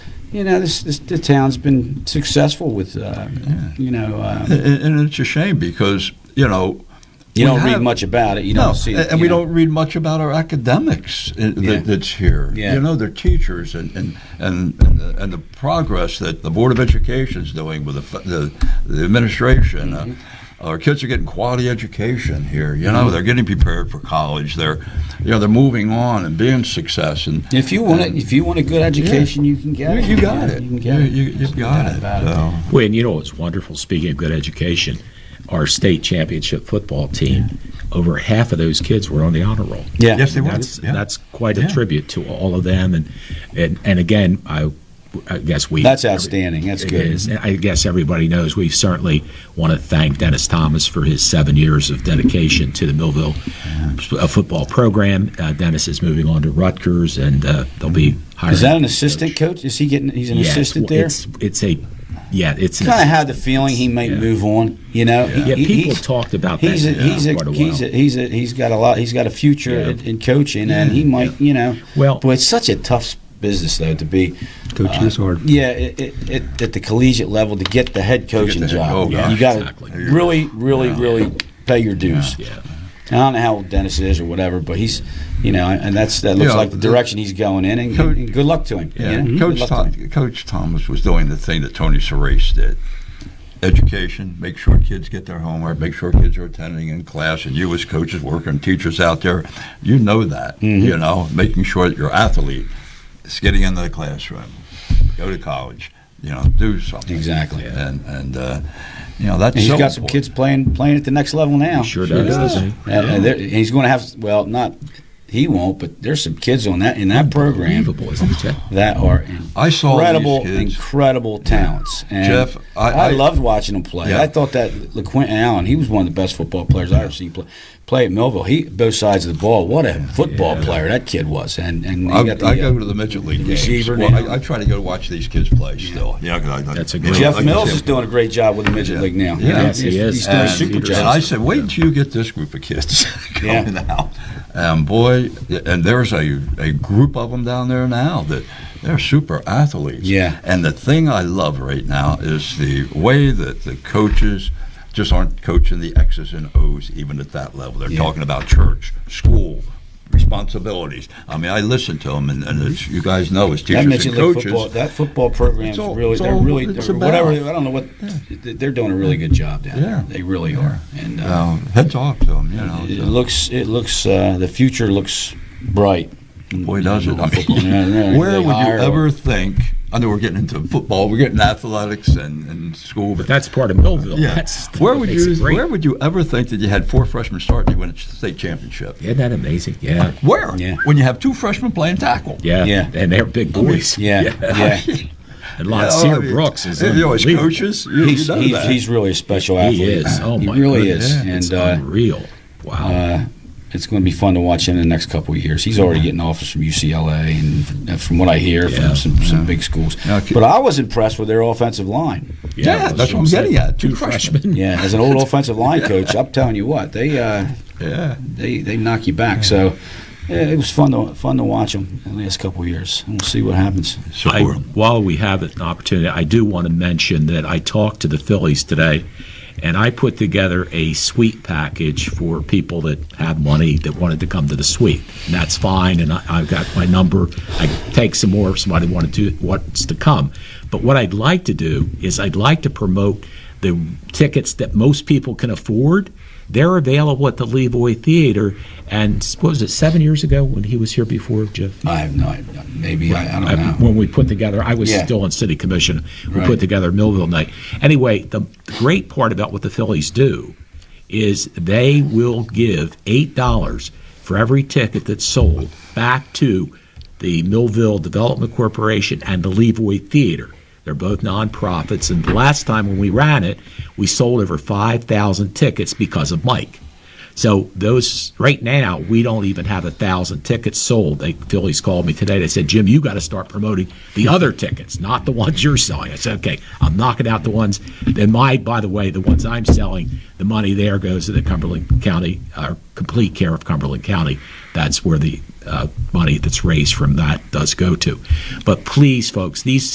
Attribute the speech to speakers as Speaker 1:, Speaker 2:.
Speaker 1: you know, this, this the town's been successful with, uh, you know, um,
Speaker 2: And, and it's a shame because, you know,
Speaker 1: you
Speaker 2: We
Speaker 1: don't read
Speaker 2: have-
Speaker 1: much about it. You
Speaker 2: no,
Speaker 1: don't see it.
Speaker 2: and
Speaker 1: you
Speaker 2: we
Speaker 1: know.
Speaker 2: don't read much about our academics i-
Speaker 1: Yeah.
Speaker 2: that, that's here.
Speaker 1: Yeah.
Speaker 2: You know, their teachers and, and, and, and, the, and the progress that the Board of Education is doing with the, f- the, the administration. Uh,
Speaker 1: Mm-hmm.
Speaker 2: our kids are getting quality education here. You know, they're getting prepared for college. They're, you know, they're moving on and being success. And
Speaker 1: If you want it, if you want a good education, you can get
Speaker 2: you,
Speaker 1: it.
Speaker 2: you got it.
Speaker 1: You can get it.
Speaker 2: You, you, have got
Speaker 1: doubt
Speaker 2: it.
Speaker 1: about it.
Speaker 2: So,
Speaker 3: Well, and you know what's wonderful? Speaking of good education, our state championship football team, over half of those kids were on the honor roll.
Speaker 1: Yeah.
Speaker 2: Yes, they were.
Speaker 3: That's
Speaker 2: yeah.
Speaker 3: that's quite a
Speaker 2: Yeah.
Speaker 3: tribute to all of them, and and and again, I, I guess we
Speaker 1: That's outstanding. That's
Speaker 3: It
Speaker 1: good.
Speaker 3: is. And I guess everybody knows we certainly want to thank Dennis Thomas for his seven years of dedication to the Millville uh, football program. Uh, Dennis is moving on to Rutgers, and uh, they'll be hiring.
Speaker 1: Is that an assistant coach? Is he getting? He's an
Speaker 3: Yeah, it's-
Speaker 1: assistant there.
Speaker 3: It's it's a yeah. It's an
Speaker 1: kind of had the feeling he might
Speaker 3: Yeah.
Speaker 1: move on. You know, He-
Speaker 3: Yeah,
Speaker 1: he-
Speaker 3: people
Speaker 1: he's-
Speaker 3: talked about that
Speaker 1: He's a,
Speaker 3: for
Speaker 1: he's a,
Speaker 3: quite a while.
Speaker 1: he's a, he's a, he's got a lot. He's got a future
Speaker 3: Yeah.
Speaker 1: in, in coaching, and he might, you know.
Speaker 3: Well-
Speaker 1: but it's such a tough s- business though to be. uh,
Speaker 4: Coaching is hard.
Speaker 1: Yeah, it, it, it, at the collegiate level to get the head coaching
Speaker 2: the head-
Speaker 1: job,
Speaker 2: oh,
Speaker 3: gosh.
Speaker 1: you got to
Speaker 3: Exactly.
Speaker 1: really, really, really pay your dues.
Speaker 3: yeah.
Speaker 1: And I don't know how old Dennis is or whatever, but he's, you know, and that's that looks
Speaker 2: Yeah,
Speaker 1: like the
Speaker 2: the-
Speaker 1: direction he's going in, and,
Speaker 2: Coach-
Speaker 1: and good luck to him.
Speaker 2: Yeah,
Speaker 1: you know? Good
Speaker 2: Coach,
Speaker 1: luck Mm-hmm. to him.
Speaker 2: Tom, Coach Thomas was doing the thing that Tony Cerise did. Education, make sure kids get their homework, make sure kids are attending in class, and you as coaches, working teachers out there, you know that.
Speaker 1: Mm-hmm.
Speaker 2: You know, making sure that your athlete is getting into the classroom, go to college, you know, do something
Speaker 1: Exactly.
Speaker 2: and and uh, you know that's
Speaker 1: And he's
Speaker 2: so
Speaker 1: got some
Speaker 2: important.
Speaker 1: kids playing playing at the next level now.
Speaker 3: He sure does, doesn't he?
Speaker 1: And, and there- and he's going to have well, not he won't, but there's some kids on that in that program
Speaker 3: Unbelievable, isn't it? Chet?
Speaker 1: that are
Speaker 2: I saw
Speaker 1: incredible,
Speaker 2: these kids.
Speaker 1: incredible talents. And
Speaker 2: Jeff, I- I-
Speaker 1: loved watching him play.
Speaker 2: Yeah.
Speaker 1: I thought that LaQuint Allen, he was one of the best football players I ever seen play play at Millville. He both sides of the ball. What a football player that kid was, and and he
Speaker 2: I,
Speaker 1: got the,
Speaker 2: I
Speaker 1: uh,
Speaker 2: go to the midget league games.
Speaker 1: receiver
Speaker 2: Well,
Speaker 1: now.
Speaker 2: I, I try to go watch these kids play still. Yeah, 'cause I- I-
Speaker 3: That's a
Speaker 2: you
Speaker 3: great-
Speaker 2: know,
Speaker 1: Jeff
Speaker 2: like you
Speaker 1: Mills
Speaker 2: said,
Speaker 1: is doing a great job with the midget league now.
Speaker 2: Yeah.
Speaker 1: You know,
Speaker 3: Yes, he
Speaker 1: he's-
Speaker 3: is.
Speaker 1: He's doing a
Speaker 3: And-
Speaker 1: super
Speaker 3: and
Speaker 1: job.
Speaker 2: And I said, wait until you get this group of kids
Speaker 1: Yeah.
Speaker 2: coming out. And boy, and there's a, a group of them down there now that they're super athletes.
Speaker 1: Yeah.
Speaker 2: And the thing I love right now is the way that the coaches just aren't coaching the X's and O's even at that level. They're
Speaker 1: Yeah.
Speaker 2: talking about church, school, responsibilities. I mean, I listen to them, and, and as you guys know, as
Speaker 1: That
Speaker 2: teachers
Speaker 1: midget
Speaker 2: and
Speaker 1: league
Speaker 2: coaches,
Speaker 1: football, that football program is
Speaker 2: It's all-
Speaker 1: really,
Speaker 2: it's
Speaker 1: they're
Speaker 2: all-
Speaker 1: really,
Speaker 2: it's
Speaker 1: they're-
Speaker 2: about-
Speaker 1: whatever, I don't know what, th- they're doing a really good job down there.
Speaker 2: Yeah.
Speaker 1: They really are. And uh,
Speaker 2: um, heads off to them, you know.
Speaker 1: it
Speaker 2: so-
Speaker 1: looks, it looks, uh, the future looks bright.
Speaker 2: Boy, does it. I mean,
Speaker 1: Yeah, yeah, they
Speaker 2: where would you
Speaker 1: hire-
Speaker 2: ever think? I know we're getting into football, we're getting athletics and, and school, but
Speaker 3: But that's part of Millville.
Speaker 2: yeah.
Speaker 3: That's
Speaker 2: where
Speaker 3: that
Speaker 2: would
Speaker 3: makes
Speaker 2: you
Speaker 3: it great.
Speaker 2: where would you ever think that you had four freshmen start and you win a state championship?
Speaker 3: Isn't that amazing? Yeah.
Speaker 2: Where?
Speaker 1: Yeah.
Speaker 2: When you have two freshmen playing tackle.
Speaker 3: Yeah.
Speaker 1: Yeah.
Speaker 3: And they're big boys.
Speaker 1: Yeah, yeah.
Speaker 3: And
Speaker 2: You know,
Speaker 3: Lonsier
Speaker 2: I mean,
Speaker 3: Brooks is
Speaker 2: you know, as
Speaker 3: unbelievable.
Speaker 2: coaches, you,
Speaker 1: He's,
Speaker 2: you know
Speaker 1: he's,
Speaker 2: that.
Speaker 1: he's really a special athlete.
Speaker 3: He is. Oh my
Speaker 1: He really
Speaker 3: goodness.
Speaker 1: is.
Speaker 3: It's
Speaker 1: And, uh,
Speaker 3: unreal. Wow.
Speaker 1: uh, it's going to be fun to watch him in the next couple of years. He's already getting offers from UCLA and f- from what I hear
Speaker 3: Yeah.
Speaker 1: from some, some big schools.
Speaker 2: Okay.
Speaker 1: But I was impressed with their offensive line.
Speaker 2: yeah, that's what I'm getting at. Two
Speaker 3: Two
Speaker 2: freshmen.
Speaker 3: freshmen.
Speaker 1: Yeah, as an old offensive line coach, I'm telling you what, they uh,
Speaker 2: Yeah.
Speaker 1: they they knock you back. So yeah, it was fun to fun to watch them the last couple of years, and we'll see what happens.
Speaker 3: I,
Speaker 2: Support 'em.
Speaker 3: while we have an opportunity, I do want to mention that I talked to the Phillies today, and I put together a suite package for people that have money that wanted to come to the suite. And that's fine, and I, I've got my number. I take some more if somebody wanted to wants to come. But what I'd like to do is I'd like to promote the tickets that most people can afford. They're available at the Levoy Theater, and what was it seven years ago when he was here before, Jeff?
Speaker 1: I have no idea. Maybe I, I don't
Speaker 3: I-
Speaker 1: know.
Speaker 3: when we put together, I was
Speaker 1: Yeah.
Speaker 3: still on city commission. We
Speaker 1: Right.
Speaker 3: put together Millville night. Anyway, the, the great part about what the Phillies do is they will give eight dollars for every ticket that's sold back to the Millville Development Corporation and the Levoy Theater. They're both nonprofits, and the last time when we ran it, we sold over five thousand tickets because of Mike. So those right now, we don't even have a thousand tickets sold. They Phillies called me today. They said, Jim, you got to start promoting the other tickets, not the ones you're selling. I said, okay, I'm knocking out the ones. Then my, by the way, the ones I'm selling, the money there goes to the Cumberland County, uh, complete care of Cumberland County. That's where the uh, money that's raised from that does go to. But please, folks, these